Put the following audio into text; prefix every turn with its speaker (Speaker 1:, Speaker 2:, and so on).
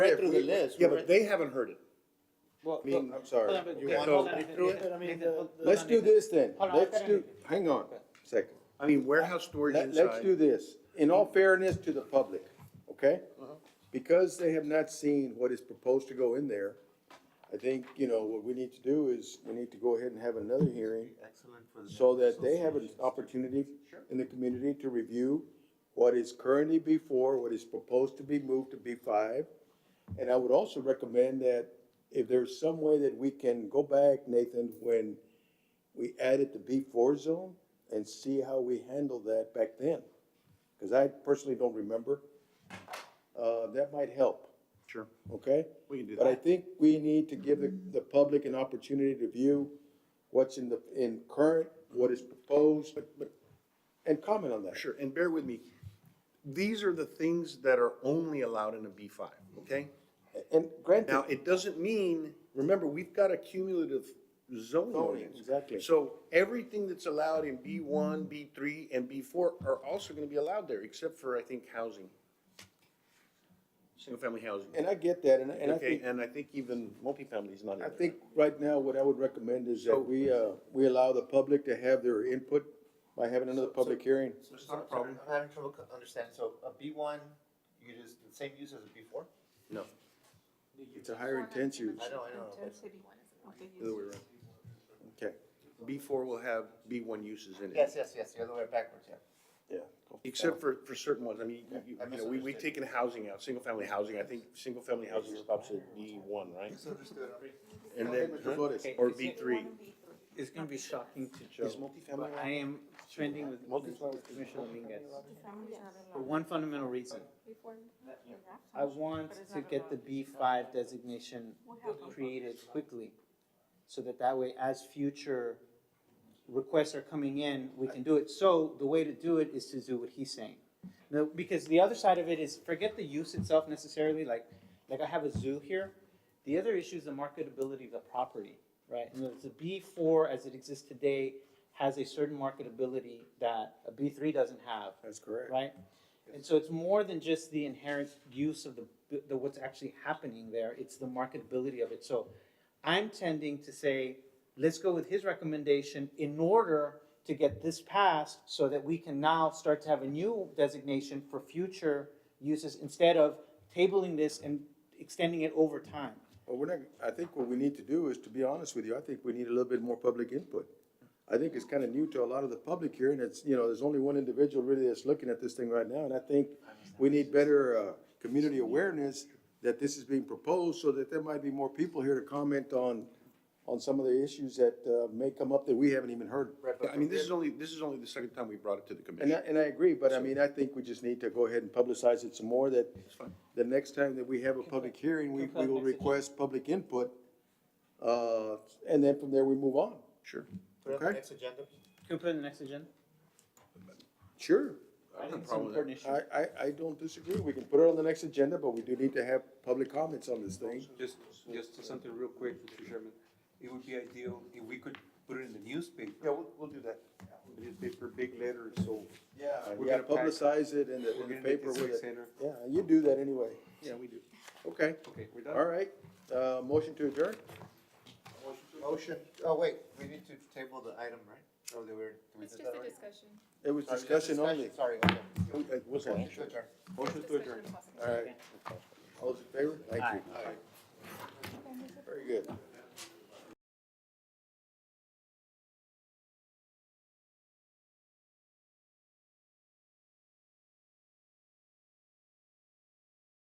Speaker 1: if
Speaker 2: through the
Speaker 1: we-
Speaker 2: list,
Speaker 1: Yeah,
Speaker 2: we
Speaker 1: but
Speaker 2: went-
Speaker 1: they haven't heard it.
Speaker 3: Well,
Speaker 1: I mean,
Speaker 3: look,
Speaker 1: I'm sorry.
Speaker 3: hold on,
Speaker 1: You
Speaker 3: okay,
Speaker 1: want
Speaker 3: hold
Speaker 1: to
Speaker 3: on,
Speaker 1: read
Speaker 3: Nathan,
Speaker 1: through
Speaker 3: hold
Speaker 1: it?
Speaker 3: on, Nathan, hold on,
Speaker 2: Let's do
Speaker 3: Nathan.
Speaker 2: this then.
Speaker 3: Hold on,
Speaker 2: Let's
Speaker 3: I've got
Speaker 2: do,
Speaker 3: it.
Speaker 2: hang on. Second.
Speaker 1: I mean, warehouse storage
Speaker 2: Let, let's do
Speaker 1: inside.
Speaker 2: this, in all fairness to the public, okay? Because they have not seen what is proposed to go in there, I think, you know, what we need to do is, we need to go ahead and have another hearing
Speaker 4: Excellent for
Speaker 2: so that they have an opportunity in the community to review what is currently B four, what is proposed to be moved to B five. And I would also recommend that if there's some way that we can go back, Nathan, when we added the B four zone and see how we handled that back then. Cause I personally don't remember. Uh, that might help,
Speaker 1: Sure.
Speaker 2: okay?
Speaker 1: We can do
Speaker 2: But I
Speaker 1: that.
Speaker 2: think we need to give the, the public an opportunity to view what's in the, in current, what is proposed, and comment on that.
Speaker 1: Sure, and bear with me. These are the things that are only allowed in a B five, okay?
Speaker 2: And granted,
Speaker 1: Now, it doesn't mean, remember, we've got a cumulative zoning
Speaker 2: Zoning,
Speaker 1: ordinance.
Speaker 2: exactly.
Speaker 1: So everything that's allowed in B one, B three, and B four are also gonna be allowed there, except for, I think, housing. Single-family housing.
Speaker 2: and I get that, and, I- and I
Speaker 1: Okay,
Speaker 2: think,
Speaker 1: and I think even multifamily is not in
Speaker 2: I
Speaker 1: there.
Speaker 2: think right now, what I would recommend is that
Speaker 1: So-
Speaker 2: we, uh, we allow the public to have their input by having another public hearing.
Speaker 4: It's not a problem. I'm having trouble co- understanding, so a B one, you could use the same use as a B four?
Speaker 1: No,
Speaker 2: It's a higher intensity.
Speaker 4: I know, I know.
Speaker 5: Intensity, what they
Speaker 1: the other
Speaker 5: use.
Speaker 1: way around.
Speaker 2: Okay,
Speaker 1: B four will have B one uses in it.
Speaker 4: Yes, yes, yes, the other way backwards, yeah.
Speaker 2: yeah.
Speaker 1: Except for, for certain ones, I mean, you- you,
Speaker 4: I
Speaker 1: you know, we, we've
Speaker 4: misunderstood.
Speaker 1: taken housing out, single-family housing, I think single-family housing stops at B one, right?
Speaker 4: Misunderstood.
Speaker 1: And
Speaker 2: Okay,
Speaker 1: then,
Speaker 2: Mr. Flores.
Speaker 3: Okay,
Speaker 1: or
Speaker 3: is
Speaker 1: B
Speaker 3: it-
Speaker 1: three.
Speaker 3: It's gonna be shocking to
Speaker 2: Is
Speaker 3: Joe,
Speaker 2: multifamily
Speaker 3: but I am trending with
Speaker 2: Multi-family.
Speaker 3: Commissioner Dominguez
Speaker 5: Family's not
Speaker 3: for
Speaker 5: allowed.
Speaker 3: one fundamental reason.
Speaker 5: Before, in that
Speaker 3: I
Speaker 5: house,
Speaker 3: want
Speaker 5: but it's
Speaker 3: to
Speaker 5: not
Speaker 3: get the
Speaker 5: allowed.
Speaker 3: B five designation
Speaker 5: We'll have them.
Speaker 3: created quickly. So that that way, as future requests are coming in, we can do it. So the way to do it is to do what he's saying. No, because the other side of it is forget the use itself necessarily, like, like I have a zoo here. The other issue is the marketability of the property, right? And the B four as it exists today has a certain marketability that a B three doesn't have
Speaker 2: That's correct.
Speaker 3: right? And so it's more than just the inherent use of the, the, what's actually happening there, it's the marketability of it. So I'm tending to say, let's go with his recommendation in order to get this passed so that we can now start to have a new designation for future uses instead of tabling this and extending it over time.
Speaker 2: Well, we're not, I think what we need to do is, to be honest with you, I think we need a little bit more public input. I think it's kind of new to a lot of the public here, and it's, you know, there's only one individual really that's looking at this thing right now, and I think we need better, uh, community awareness that this is being proposed, so that there might be more people here to comment on, on some of the issues that, uh, may come up that we haven't even heard.
Speaker 1: I mean, this is only, this is only the second time we brought it to the
Speaker 2: And I,
Speaker 1: commission.
Speaker 2: and I agree, but I mean, I think we just need to go ahead and publicize it some more, that
Speaker 1: fine.
Speaker 2: the next time that we have a public hearing, we, we will request public input. Uh, and then from there, we move on.
Speaker 1: Sure.
Speaker 4: Put it on the
Speaker 2: Okay.
Speaker 4: next agenda.
Speaker 3: Can we put it on the next agenda?
Speaker 2: Sure.
Speaker 1: I don't have a
Speaker 3: It's an
Speaker 1: problem with that.
Speaker 3: important issue.
Speaker 2: I, I, I don't disagree. We can put it on the next agenda, but we do need to have public comments on this thing.
Speaker 6: Just, just something real quick, Mr. Chairman. It would be ideal if we could put it in the
Speaker 4: Yeah,
Speaker 6: newspaper,
Speaker 4: we'll, we'll do that.
Speaker 6: newspaper, big letters, so.
Speaker 2: Yeah. We
Speaker 6: We're
Speaker 2: gotta
Speaker 6: gonna pack-
Speaker 2: publicize it in the,
Speaker 6: We're
Speaker 2: in the
Speaker 6: gonna make
Speaker 2: paper
Speaker 6: this
Speaker 2: with
Speaker 6: a
Speaker 2: it.
Speaker 6: center.
Speaker 2: Yeah, you do that anyway.
Speaker 1: Yeah, we do.
Speaker 2: Okay,
Speaker 6: Okay, we're
Speaker 2: all
Speaker 6: done.
Speaker 2: right. Uh, motion to adjourn?
Speaker 4: Motion, oh, wait, we need to table the item, right? Oh, they were, we
Speaker 7: It's just
Speaker 4: did that
Speaker 7: a
Speaker 4: already?
Speaker 7: discussion.
Speaker 2: It was
Speaker 4: Sorry, just
Speaker 2: discussion only.
Speaker 4: discussion, Sorry, okay.
Speaker 2: Uh, what's that?
Speaker 4: Motion to adjourn.
Speaker 6: Motion to adjourn.
Speaker 7: Discussion possible.
Speaker 2: All right. All those in favor? Thank you. Very good.